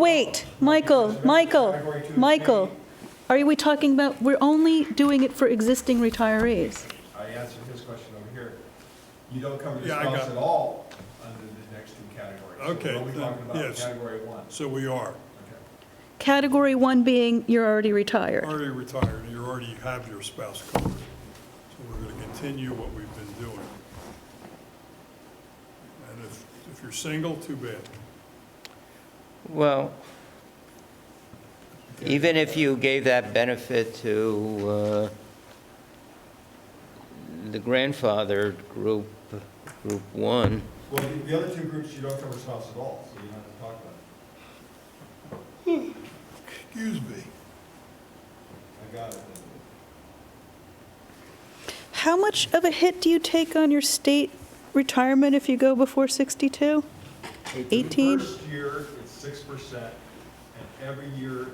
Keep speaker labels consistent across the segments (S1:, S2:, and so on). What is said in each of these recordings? S1: Wait, Michael, Michael,
S2: Category two
S1: Michael, are we talking about, we're only doing it for existing retirees?
S2: I answered his question over here. You don't cover your
S3: Yeah, I got
S2: spouse
S3: it.
S2: at all under the next two categories. So
S3: Okay,
S2: What are we
S3: then,
S2: talking about, in
S3: yes.
S2: category one?
S3: So we are
S2: Okay.
S1: Category one being you're already retired.
S3: already retired, and you already have your spouse covered. So we're going to continue what we've been doing. And if, if you're single, too bad.
S4: Well, even if you gave that benefit to uh, the grandfathered group, group one,
S2: Well, the- the other two groups, you don't cover spouse at all, so you don't have to talk about it.
S3: Excuse me.
S2: I got it. then.
S1: How much of a hit do you take on your state retirement if you go before 62?
S2: The
S1: 18?
S2: First year, it's six percent, and every year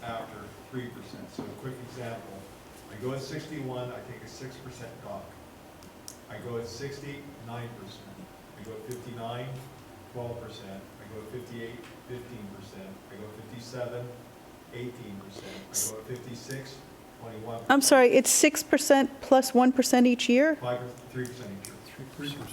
S2: thereafter, three percent. So a quick example, I go at sixty-one, I take a six percent dock. I go at sixty, nine percent. I go at 59, 12 percent. I go at 58, 15 percent. I go at 57, 18 percent. I go at 56, 21.
S1: I'm sorry, it's 6% plus 1% each year?
S2: Five, three percent each year.
S3: Three percent.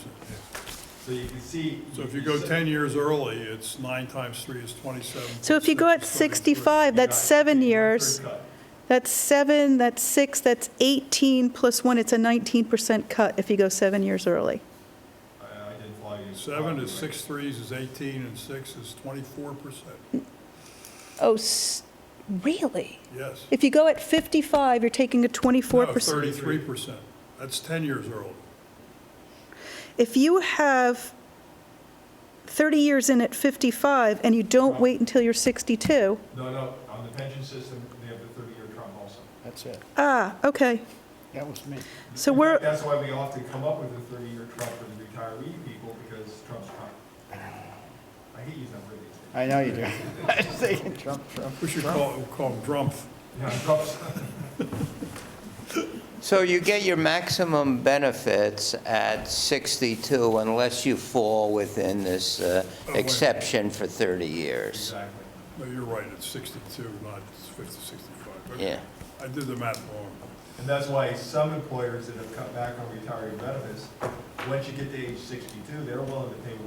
S2: So you can see.
S3: So if you go 10 years early, it's nine times three is 27.
S1: So if you go at
S3: Six is 33.
S1: 65, that's
S2: got
S1: seven
S2: one-third
S1: years.
S2: cut.
S1: That's seven, that's six, that's 18 plus one, it's a 19% cut if you go seven years early.
S2: I I didn't follow you.
S3: Seven is six threes is 18, and six is 24 percent.
S1: Oh, s- really?
S3: Yes.
S1: If you go at 55, you're taking a 24%.
S3: Thirty-three percent. That's 10 years early.
S1: If you have 30 years in at 55 and you don't wait until you're 62,
S2: No, no, on the pension system, they have the 30-year term also.
S5: That's it.
S1: ah, okay.
S5: That was me.
S1: So
S2: In fact,
S1: we're,
S2: That's why we often come up with a 30-year Trump for the retiree people, because Trump's Trump. I hate using that word these days.
S5: I know you do. I was thinking Trump, Trump.
S3: We should call, call them drumpf.
S2: Yeah, Trump's,
S4: So you get your maximum benefits at 62 unless you fall within this uh,
S3: wait.
S4: exception for 30 years.
S2: exactly.
S3: No, you're right, it's 62, not 50, 65. Okay.
S4: Yeah.
S3: I did the math wrong.
S2: And that's why some employers that have cut back on retiree benefits, once you get to age 62, they're willing to pay 100% to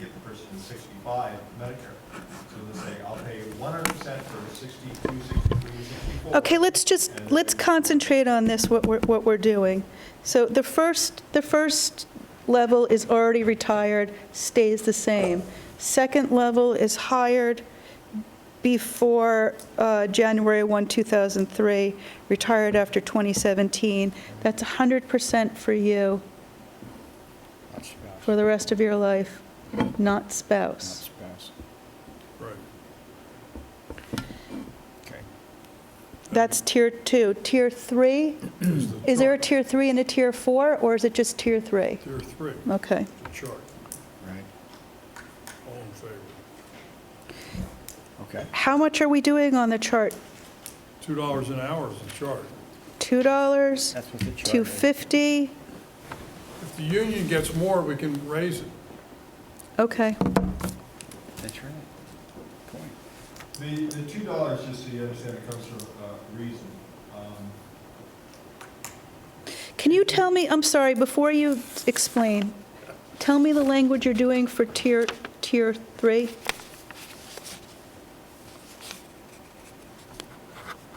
S2: get the person to 65 Medicare. So they say, I'll pay 100% for 62, 63, 64.
S1: okay, let's just, let's concentrate on this, what we're, what we're doing. So the first, the first level is already retired, stays the same. Second level is hired before uh, January 1, 2003, retired after 2017. That's 100% for you.
S5: Not spouse,
S1: for the rest of your life, not
S5: not
S1: spouse.
S5: spouse.
S3: Right.
S5: Okay.
S1: That's tier two. Tier three,
S3: It's the
S1: is there a
S3: chart.
S1: tier three and a tier four, or is it just tier three?
S3: Tier three,
S1: Okay.
S3: the chart,
S5: Right,
S3: all in favor.
S5: okay.
S1: How much are we doing on the chart?
S3: $2 an hour is the chart.
S1: Two dollars,
S5: That's what the chart
S1: two
S5: is.
S1: fifty?
S3: If the union gets more, we can raise it.
S1: Okay.
S5: That's right. Point.
S2: The, the two dollars, just so you understand, it comes from uh, reason. Um,
S1: Can you tell me, I'm sorry, before you explain, tell me the language you're doing for tier, tier three?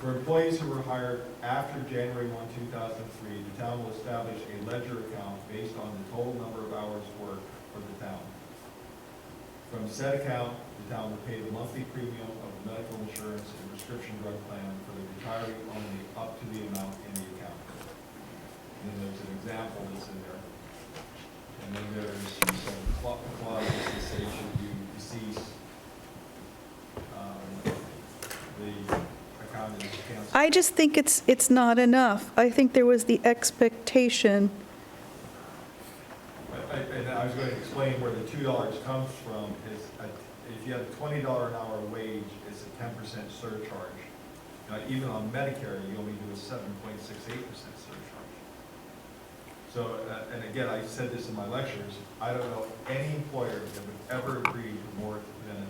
S2: For employees who were hired after January 1, 2003, the town will establish a ledger account based on the total number of hours worked for the town. From said account, the town will pay the monthly premium of the medical insurance and prescription drug plan for the retiree only up to the amount in the account. And then there's an example that's in there. And then there's some cla- clauses that say should you decease, um, the account is canceled.
S1: I just think it's, it's not enough. I think there was the expectation,
S2: I- I- And I was going to explain where the two dollars comes from, is a- if you have a twenty dollar an hour wage, it's a ten percent surcharge. Now, even on Medicare, you only do a seven point six eight percent surcharge. So, uh, and again, I said this in my lectures, I don't know any employer that would ever agree to more